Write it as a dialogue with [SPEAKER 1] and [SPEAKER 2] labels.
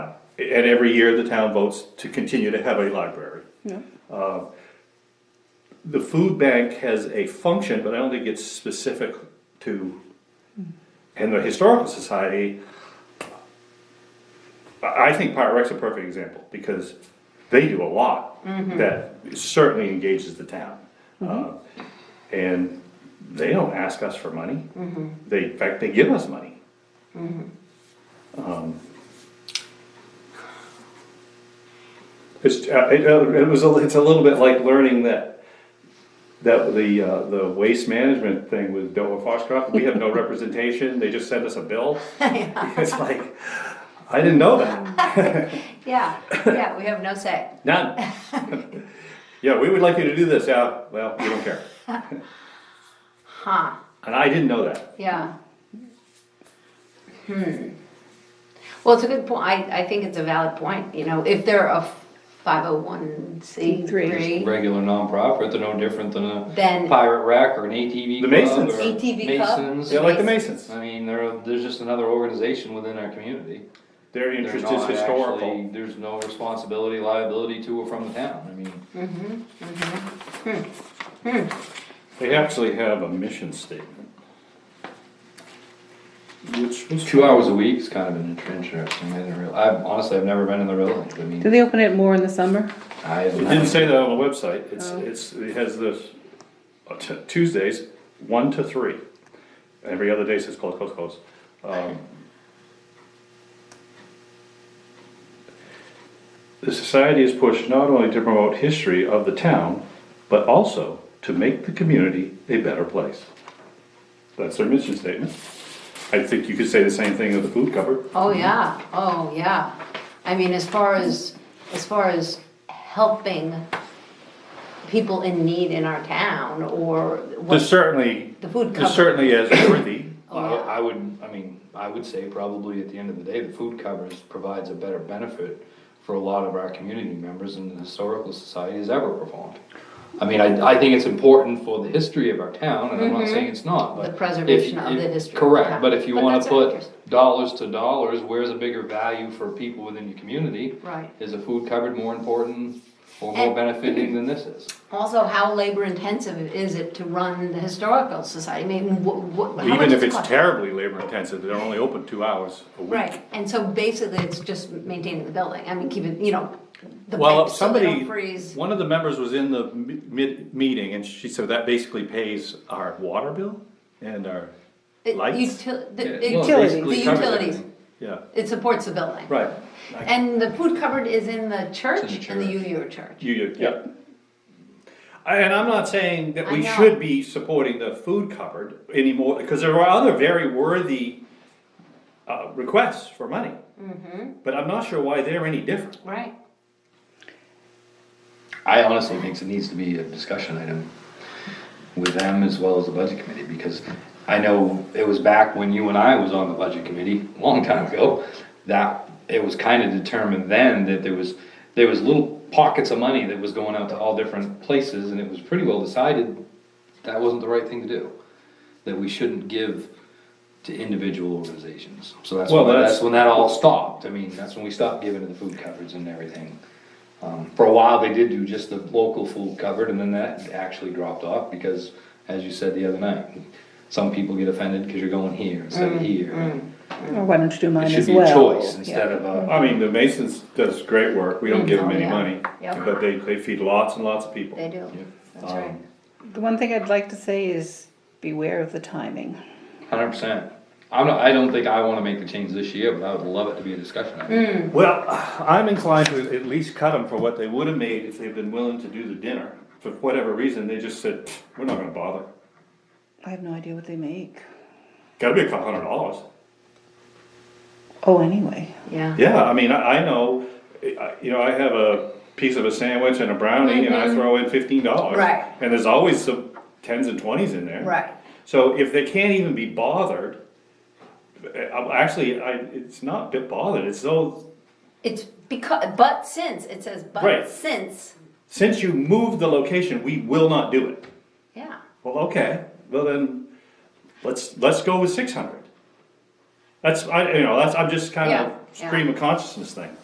[SPEAKER 1] and every year the town votes to continue to have a library. Uh, The food bank has a function, but I don't think it's specific to, and the historical society, I, I think Pirate Rec's a perfect example, because they do a lot that certainly engages the town. Uh, And they don't ask us for money, they, in fact, they give us money. It's, uh, it, uh, it was, a- it's a little bit like learning that, that the, uh, the waste management thing with Dover Foxcroft, we have no representation, they just send us a bill. It's like, I didn't know that,
[SPEAKER 2] Yeah, yeah, we have no say.
[SPEAKER 1] none. Yeah, we would like you to do this, yeah, well, we don't care,
[SPEAKER 2] Huh,
[SPEAKER 1] and I didn't know that.
[SPEAKER 2] yeah. Hmm. Well, it's a good point. I, I think it's a valid point, you know, if they're a five oh one C three.
[SPEAKER 3] regular nonprofit, they're no different than
[SPEAKER 2] Then-
[SPEAKER 3] a pirate rack or an ATV
[SPEAKER 1] The
[SPEAKER 3] club.
[SPEAKER 1] Masons.
[SPEAKER 3] or
[SPEAKER 2] ATV club.
[SPEAKER 3] Masons.
[SPEAKER 1] Yeah, like the Masons,
[SPEAKER 3] I mean, they're, there's just another organization within our community.
[SPEAKER 1] their
[SPEAKER 3] They're
[SPEAKER 1] interest is
[SPEAKER 3] not
[SPEAKER 1] historical.
[SPEAKER 3] actually- There's no responsibility, liability to or from the town, I mean.
[SPEAKER 1] They actually have a mission statement. Which was.
[SPEAKER 3] Two hours a week's kind of an int- interesting, I didn't real, I honestly, I've never been in the building, I
[SPEAKER 4] Do
[SPEAKER 3] mean,
[SPEAKER 4] they open it more in the summer?
[SPEAKER 3] I.
[SPEAKER 1] It didn't say that on the website,
[SPEAKER 2] Oh.
[SPEAKER 1] it's, it's, it has this, uh, t- Tuesdays, one to three. Every other day says close, close, close. Um, The society is pushed not only to promote history of the town, but also to make the community a better place. That's their mission statement. I think you could say the same thing of the food cupboard.
[SPEAKER 2] Oh, yeah, oh, yeah. I mean, as far as, as far as helping people in need in our town or
[SPEAKER 1] There's
[SPEAKER 2] what,
[SPEAKER 1] certainly,
[SPEAKER 2] the food
[SPEAKER 1] there's
[SPEAKER 2] cupboard.
[SPEAKER 1] certainly as worthy,
[SPEAKER 3] Well, I would, I mean, I would say probably at the end of the day, the food covers provides a better benefit for a lot of our community members than the historical society has ever performed. I mean, I, I think it's important for the history of our town, and I'm not saying it's not, but.
[SPEAKER 2] Mm-hmm. The
[SPEAKER 3] if-
[SPEAKER 2] preservation of
[SPEAKER 3] if-
[SPEAKER 2] the history of the town.
[SPEAKER 3] Correct, but if you
[SPEAKER 2] But
[SPEAKER 3] wanna
[SPEAKER 2] that's
[SPEAKER 3] put
[SPEAKER 2] interesting.
[SPEAKER 3] dollars to dollars, where's a bigger value for people within your community?
[SPEAKER 2] Right.
[SPEAKER 3] Is a food cupboard more important or more
[SPEAKER 2] And-
[SPEAKER 3] benefiting than this is?
[SPEAKER 2] Also, how labor intensive is it to run the historical society? I mean, what, what, how much
[SPEAKER 1] Even
[SPEAKER 2] does
[SPEAKER 1] if
[SPEAKER 2] it
[SPEAKER 1] it's
[SPEAKER 2] cost?
[SPEAKER 1] terribly labor intensive, they're only open two hours a week.
[SPEAKER 2] Right, and so basically, it's just maintaining the building, I mean, keeping, you know, the
[SPEAKER 1] Well,
[SPEAKER 2] pipes so they
[SPEAKER 1] somebody,
[SPEAKER 2] don't freeze.
[SPEAKER 1] one of the members was in the mi- mid, meeting and she said that basically pays our water bill and our
[SPEAKER 2] It-
[SPEAKER 1] lights.
[SPEAKER 2] util- the-
[SPEAKER 3] Yeah,
[SPEAKER 2] the-
[SPEAKER 3] well, it
[SPEAKER 4] Utilities.
[SPEAKER 3] basically
[SPEAKER 2] The
[SPEAKER 3] covers
[SPEAKER 2] utilities.
[SPEAKER 3] everything.
[SPEAKER 1] Yeah,
[SPEAKER 2] It supports the building.
[SPEAKER 1] right.
[SPEAKER 2] And the food cupboard is in the church, in the
[SPEAKER 3] church.
[SPEAKER 2] UU church.
[SPEAKER 1] You, you, yeah. I- And I'm not saying that
[SPEAKER 2] I
[SPEAKER 1] we
[SPEAKER 2] know.
[SPEAKER 1] should be supporting the food cupboard anymore, because there are other very worthy uh, requests for money.
[SPEAKER 2] Mm-hmm.
[SPEAKER 1] But I'm not sure why they're any different.
[SPEAKER 2] Right.
[SPEAKER 3] I honestly think it needs to be a discussion item with them as well as the budget committee, because I know it was back when you and I was on the budget committee, a long time ago, that it was kind of determined then that there was, there was little pockets of money that was going out to all different places, and it was pretty well decided that wasn't the right thing to do, that we shouldn't give to individual organizations. So that's,
[SPEAKER 1] Well,
[SPEAKER 3] when-
[SPEAKER 1] that's-
[SPEAKER 3] that's when that all stopped, I mean, that's when we stopped giving to the food cupboards and everything. Um, For a while, they did do just the local food covered, and then that actually dropped off because, as you said the other night, some people get offended because you're going here instead of here.
[SPEAKER 4] Or why don't you do
[SPEAKER 3] It
[SPEAKER 4] mine
[SPEAKER 3] should
[SPEAKER 4] Mm, as
[SPEAKER 3] be a
[SPEAKER 4] well?
[SPEAKER 3] choice instead of a,
[SPEAKER 1] I mean, the Masons does great work, we don't give them
[SPEAKER 2] Oh,
[SPEAKER 1] any
[SPEAKER 2] yeah.
[SPEAKER 1] money,
[SPEAKER 2] Yep.
[SPEAKER 1] but they, they feed lots and lots of people.
[SPEAKER 2] They do, that's right.
[SPEAKER 3] Um,
[SPEAKER 4] The one thing I'd like to say is beware of the timing.
[SPEAKER 3] hundred percent. I'm not, I don't think I wanna make the change this year, but I would love it to be a discussion. item.
[SPEAKER 1] Well, I'm inclined to at least cut them for what they would have made if they'd been willing to do the dinner. For whatever reason, they just said, "Pfft, we're not gonna bother.
[SPEAKER 4] I have no idea what they make.
[SPEAKER 1] Gotta be a couple hundred dollars.
[SPEAKER 4] Oh, anyway.
[SPEAKER 2] Yeah.
[SPEAKER 1] Yeah, I mean, I, I know, I- you know, I have a piece of a sandwich and a brownie and I throw in fifteen dollars.
[SPEAKER 2] Mm-hmm. Right.
[SPEAKER 1] And there's always some tens and twenties in there.
[SPEAKER 2] Right.
[SPEAKER 1] So if they can't even be bothered, i actually, I, it's not bit bothered, it's so
[SPEAKER 2] It's because, but since, it says,
[SPEAKER 1] Right.
[SPEAKER 2] but since,
[SPEAKER 1] since you moved the location, we will not do it.
[SPEAKER 2] yeah,
[SPEAKER 1] Well, okay, well then, let's, let's go with six hundred. That's, I, you know, that's, I'm just kind
[SPEAKER 2] Yeah,
[SPEAKER 1] of
[SPEAKER 2] yeah.
[SPEAKER 1] stream of consciousness thing.